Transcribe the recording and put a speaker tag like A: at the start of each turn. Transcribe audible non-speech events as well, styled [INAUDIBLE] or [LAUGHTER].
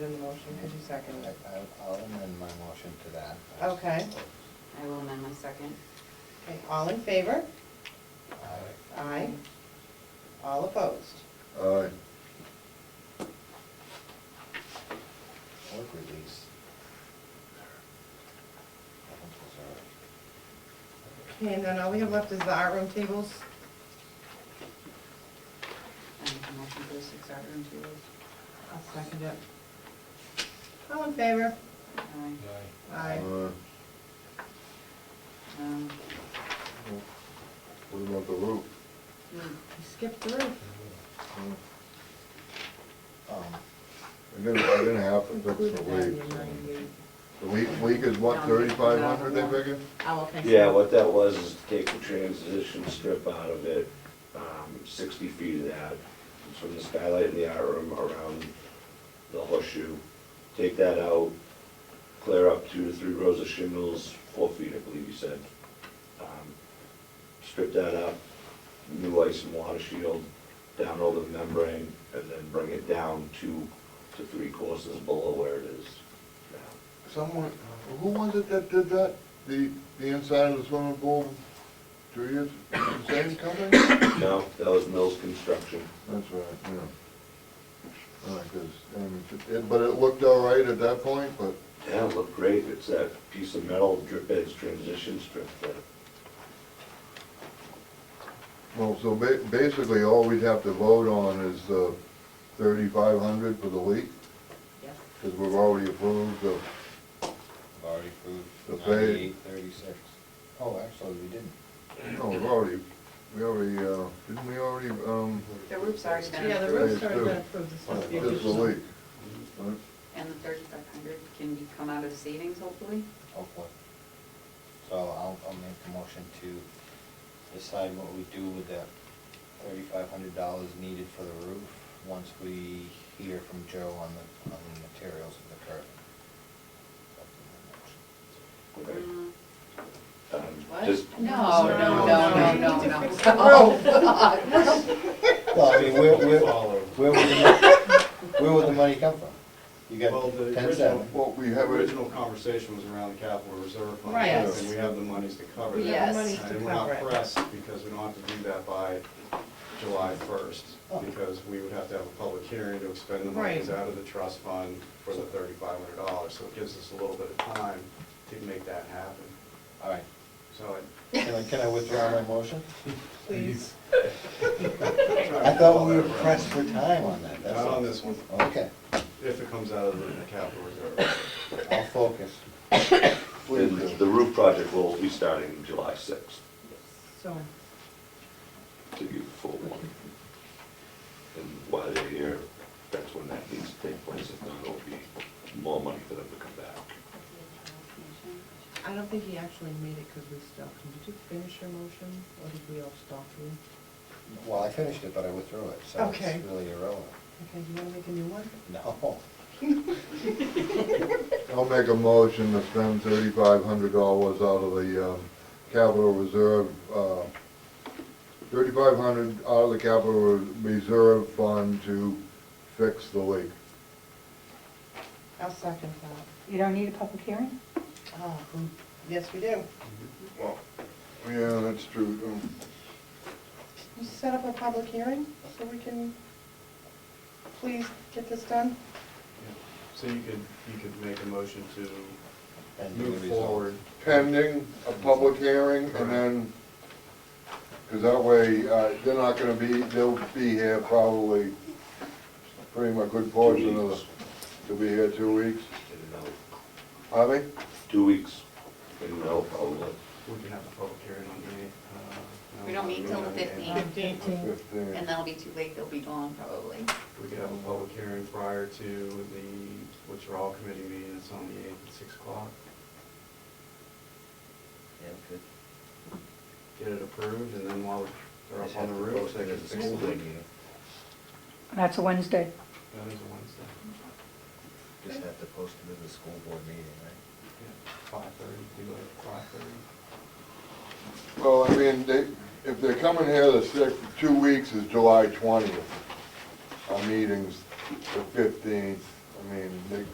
A: in the motion, could you second it?
B: I- I'll- I'll amend my motion to that.
A: Okay.
C: I will amend my second.
A: Okay, all in favor?
B: Aye.
A: Aye. All opposed?
D: Aye.
B: Work release. I don't deserve it.
A: Okay, and then all we have left is the art room tables.
C: I make a motion for the six hour and two hours.
A: I'll second it. All in favor?
C: Aye.
A: Aye.
B: Uh,
C: Um,
D: What about the roof?
C: hmm,
A: You Skipped the roof.
B: Um,
D: We're gonna, we're gonna have to fix the
A: Included that in the
D: leak.
A: 98.
D: The leak, leak is what, thirty-five hundred, they figure?
A: I will fix it.
E: Yeah, what that was is take the transition strip out of it, um, sixty feet of that, it's from the skylight in the art room around the horseshoe. Take that out, clear up two to three rows of shingles, four feet, I believe you said. Um, Strip that up, new ice and water shield, down over the membrane, and then bring it down two to three courses below where it is now. [COUGHS]
D: Someone, who was it that did that? The, the inside of the swimming pool, two years, the same company?
E: No, that was Mills Construction.
D: That's right, yeah. All right, 'cause, I mean, it, but it looked all right at that point, but
E: Yeah, it looked great. It's that piece of metal drip edge transition strip that,
D: Well, so ba- basically, all we'd have to vote on is the thirty-five hundred for the leak,
A: Yes.
D: because we've already approved the,
B: I've already approved
D: The fade.
B: ninety-eight thirty-six. Oh, actually, we didn't.
D: no, Oh, we've already, we already, uh, didn't we already, um,
C: The roof's already been
A: Yeah, the
C: approved,
A: roof's already been approved. This is the
D: just the
A: additional.
D: leak? right?
C: and the thirty-five hundred can be come out of savings hopefully.
B: Hopefully. So I'll, I'll make a motion to decide what we do with that thirty-five hundred dollars needed for the roof once we hear from Joe on the, on the materials of the curtain.
C: Mm,
E: um,
C: What?
E: just,
C: No, no, no, no,
A: We need to
C: no,
A: fix the
C: no. [LAUGHS] Oh, [LAUGHS] God.
B: Well, I mean, where, where, where would the, mon- where would the money come from? You
F: Well,
B: got
F: the
B: ten
F: original-
B: seven.
D: Well, we
F: The
D: have it,
F: original conversation was around the capital reserve fund.
A: Right.
D: Yes.
F: And we have the monies to cover
A: We have
C: Yes.
F: that.
A: the monies to
F: And we're
A: cover
F: not
A: it.
F: pressed because we don't have to do that by July first, because we would have to have a public hearing to expend the monies
A: Right.
F: out of the trust fund for the thirty-five hundred dollars. So it gives us a little bit of time to make that happen.
B: All right,
F: So
B: can I, can I withdraw my motion?
A: Please.
F: I. [LAUGHS]
B: I thought we were pressed for time on that, that's
F: Not
B: all.
F: on this one,
B: Okay,
F: if it comes out of the capital reserve.
B: I'll focus.
E: and the roof project will be starting July sixth,
A: So,
E: to give you the full one. And while they're here, that's when that needs to take place, if not, it'll be more money for them to come back.
A: I don't think he actually made it because we stopped him. Did you finish your motion or did we all stop you?
B: Well, I finished it, but I withdrew it, so
A: Okay.
B: it's really irrelevant.
A: Okay, you want to make a new one?
B: No.
D: I'll make a motion to spend thirty-five hundred dollars out of the, um, capital reserve, uh, thirty-five hundred out of the capital reserve fund to fix the leak.
A: I'll second that.
G: You don't need a public hearing?
A: Oh, who- yes, we do.
D: Yeah, that's true. um,
A: You set up a public hearing so we can please get this done?
F: So you could, you could make a motion to
B: Pending the
F: move
B: result.
F: forward
D: pending a public hearing, and then, because that way, uh, they're not gonna be, they'll be here probably pretty much good portion of the, they'll be here two weeks,
E: And now,
D: are they?
E: two weeks, and now, I'll,
F: We can have a public hearing on the uh, eighth.
C: We don't meet till the fifteenth,
D: Fifteen.
C: and that'll be too late, they'll be gone probably.
F: We could have a public hearing prior to the withdrawal committee meeting that's on the eighth at six o'clock.
B: Yeah, good.
F: Get it approved, and then while they're up on the roof, they can fix
B: School
F: it.
B: board
F: That
B: meeting.
G: That's a Wednesday.
F: is a Wednesday.
B: Just have to post it as a school board meeting, right?
F: Five thirty, do it at five thirty.
D: Well, I mean, they, if they're coming here the sixth, two weeks is July twentieth. Our meeting's the fifteenth, I mean, they